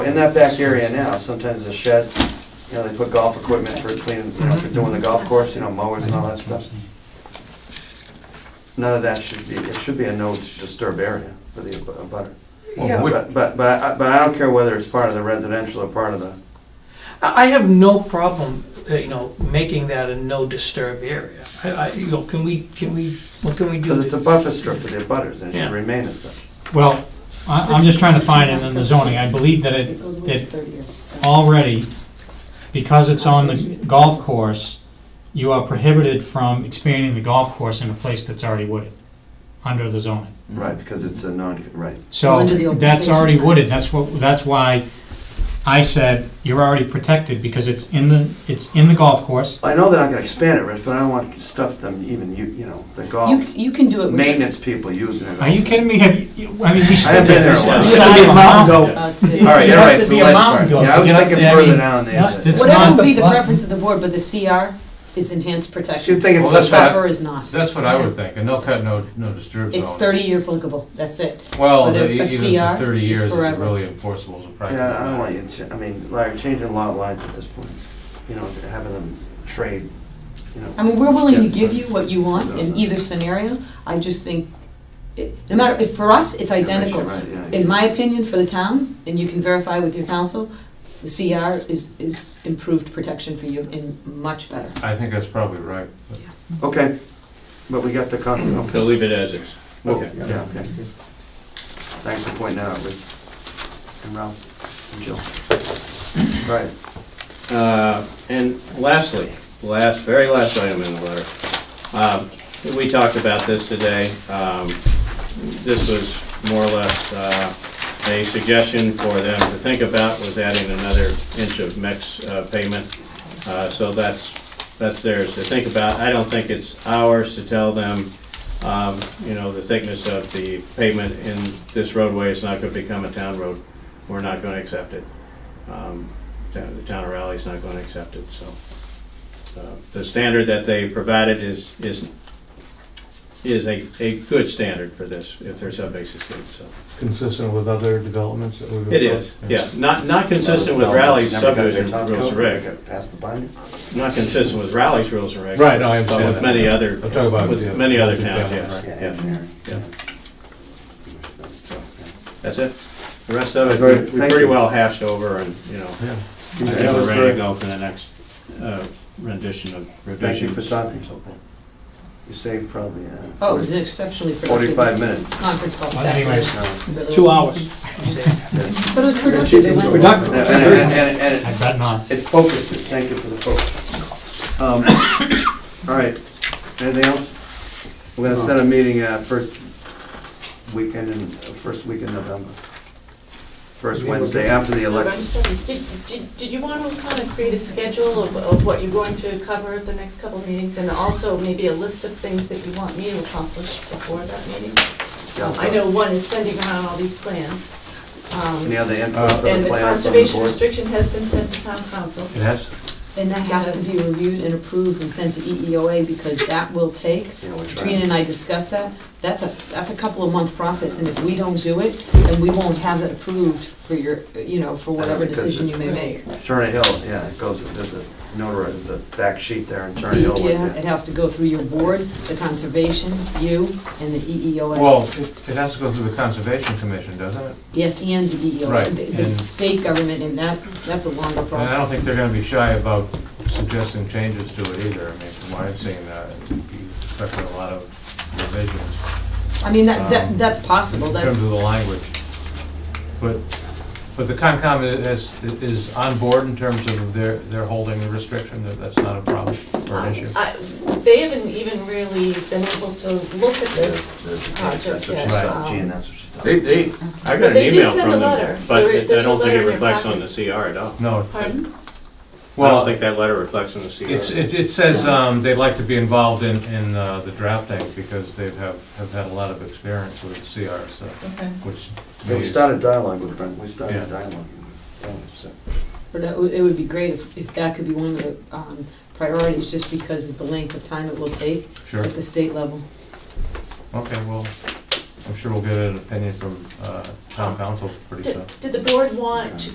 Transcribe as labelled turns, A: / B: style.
A: In that back area now, sometimes the shed, you know, they put golf equipment for cleaning, you know, for doing the golf course, you know, mowers and all that stuff. None of that should be, it should be a no disturb area for the ab- abutter.
B: Yeah.
C: Would-
A: But, but, but I- but I don't care whether it's part of the residential or part of the,
B: I I have no problem, uh, you know, making that a no disturb area. I, I, you know, can we, can we, what can we do?
A: because it's a buffer strip for the abutters and it
B: Yeah.
A: should remain as such.
D: Well, I- I'm just trying to find it in the zoning. I believe that it,
E: It goes away
D: it
E: for 30 years.
D: already, because it's on the golf course, you are prohibited from expanding the golf course in a place that's already wooded, under the zoning.
A: Right, because it's a non, right.
E: Well,
D: So
E: under the open
D: that's
E: space.
D: already wooded, that's what, that's why I said you're already protected because it's in the, it's in the golf course.
A: I know they're not gonna expand it, Rich, but I don't want stuff them even, you, you know, the
E: You,
A: golf,
E: c- you can do it. with-
A: maintenance people using it.
D: Are you kidding me? Have you- you- I mean, we stood
A: haven't been
D: there, this
A: there in a
D: is the
A: while.
D: side of a mountain goat.
E: Uh, it's- it-
A: All right,
D: You'd
A: all
D: have
A: right,
D: to
A: so
D: be a
A: let's
D: mountain
A: part.
D: goat
A: Yeah, I
D: to
A: was
D: get up
A: thinking
D: there. I
A: further
D: mean,
A: down there,
D: that's-
A: but-
D: that's
E: Whatever
D: not
E: would be the
D: lot.
E: preference of the board, but the CR is enhanced
A: So you
E: protection.
A: think it's
C: Well,
E: The
C: that's
A: such
E: buffer is not.
C: That's what I would think, a no-cut, no, no disturb zone.
E: It's 30-year applicable, that's it.
C: Well,
E: but a-
C: the-
E: a
C: even
E: CR
C: for thirty
E: is
C: years, it's
E: forever.
C: really enforceable as a practical
A: Yeah, I don't want
C: matter.
A: you to, I mean, Larry, changing lot lines at this point, you know, having them trade, you know.
E: I mean, we're willing to
A: Yeah.
E: give you what you want in either scenario, I just think, it- no matter, if, for us, it's identical.
A: Right, yeah, yeah.
E: In my opinion, for the town, and you can verify with your council, the CR is, is improved protection for you and much better.
C: I think that's probably right. but-
A: Okay, but we got the concept, okay.
F: They'll leave it as is.
A: Well, Yeah, okay. Thanks for pointing that out, Rich, and Ralph, and Jill. Right,
F: Uh, And lastly, last, very last item in the letter. Um, We talked about this today. Um, This was more or less uh, a suggestion for them to think about was adding another inch of MEX uh, payment. Uh, So that's, that's theirs to think about. I don't think it's ours to tell them, um, you know, the thickness of the pavement in this roadway is not going to become a town road. We're not going to accept it. Um, town- the town of Raleigh's not going to accept it, so. uh, The standard that they provided is, is, is a, a good standard for this, if their subbase is good, so.
G: Consistent with other developments that we've.
F: It is, yeah, not, not consistent with
A: Well, it's
F: Raleigh's
A: never got their
F: subdivision
A: top
F: rules
A: coat,
F: and regs,
A: got Past the binder.
F: not consistent with Raleigh's rules and regs.
G: Right, no, I understand
F: But with
G: that.
F: many other,
G: I'm talking about the-
F: with many other towns,
G: Yeah,
F: yes,
G: right.
A: Yeah,
F: yeah,
A: engineering.
F: yeah.
A: That's tough,
F: that's it. The rest of it,
A: Very-
F: we- we
A: thank
F: pretty
A: you.
F: well hashed over and, you know, I
G: Yeah.
A: yeah.
F: think we're ready to go for the next uh, rendition of revision.
A: Thank you for stopping. You saved probably, uh.
E: Oh, it was an exceptionally productive.
A: 45 minutes.
E: Conference call,
D: Well, anyways,
E: Saturday.
A: No.
E: Really-
B: Two hours.
E: But it was productive, it went.
D: Productive.
A: And, and, and- and
D: I
A: it-
D: bet not.
A: it focused it, thank you for the focus. Um, All right, anything else? We're gonna set a meeting, uh, first weekend in, uh, first week in November. First Wednesday after the
H: Look, I'm
A: election.
H: just saying, did, did, did you want to kind of create a schedule of, of what you're going to cover at the next couple of meetings? And also maybe a list of things that you want me to accomplish before that meeting? Um, I know one is sending around all these plans. um,
A: Any other input for
H: And
A: the
H: the
A: planners on the
H: conservation
A: board?
H: restriction has been sent to town council.
C: It has,
E: And that has to be reviewed and approved and sent to E EEOA because that will take,
A: Yeah, we're
E: Trina
A: trying.
E: and I discussed that, that's a, that's a couple of month process, and if we don't do it, then we won't have it approved for your, you know, for whatever
A: Because
E: decision you
A: it's-
E: may make.
A: Turner Hill, yeah, it goes, there's a notary, there's a back sheet there in Turner Hill. with
E: Yeah,
A: the-
E: it has to go through your board, the conservation, you, and the E EEOA.
C: well, it it has to go through the Conservation Commission, doesn't it?
E: Yes, and the E EEOA.
C: Right,
E: The- The
C: and-
E: state government, and that, that's a longer
C: And I don't think
E: process.
C: they're gonna be shy about suggesting changes to it either. I mean, from what I've seen, uh, you expect a lot of revisions
E: I mean, that, that,
C: um,
E: that's possible,
C: in terms of the
E: that's,
C: language. But, but the Concom i- is, is on board in terms of their, their holding the restriction, that that's not a problem or an issue.
H: Um, I- They haven't even really been able to look at
A: There's-
H: this
A: there's the- That's
H: project
A: what
H: yet.
A: she
H: um,
A: thought, Gene, that's what she thought.
F: They, they, I
H: But
F: got an
H: they did
F: email
H: send
F: from
H: a
F: them,
H: letter.
F: but
H: There-
F: it- I
H: there's a
F: don't think
H: letter
F: it
H: in your
F: reflects
H: packet.
F: on the CR at all.
C: No,
H: Pardon?
F: I don't
C: well,
F: think that letter reflects on the CR.
C: it's, it it says um, they'd like to be involved in, in uh, the drafting because they have, have had a lot of experience with CR, so,
H: Okay.
C: which to me
A: We
C: is-
A: started dialogue with Brent, we started
C: Yeah.
A: dialogue. Yeah, so-
E: but that would- it would be great if, if that could be one of the, um, priorities, just because of the length of time it will take
C: Sure,
E: at the state level.
C: okay, well, I'm sure we'll get an opinion from uh, town council pretty soon.
H: Did, did the board want to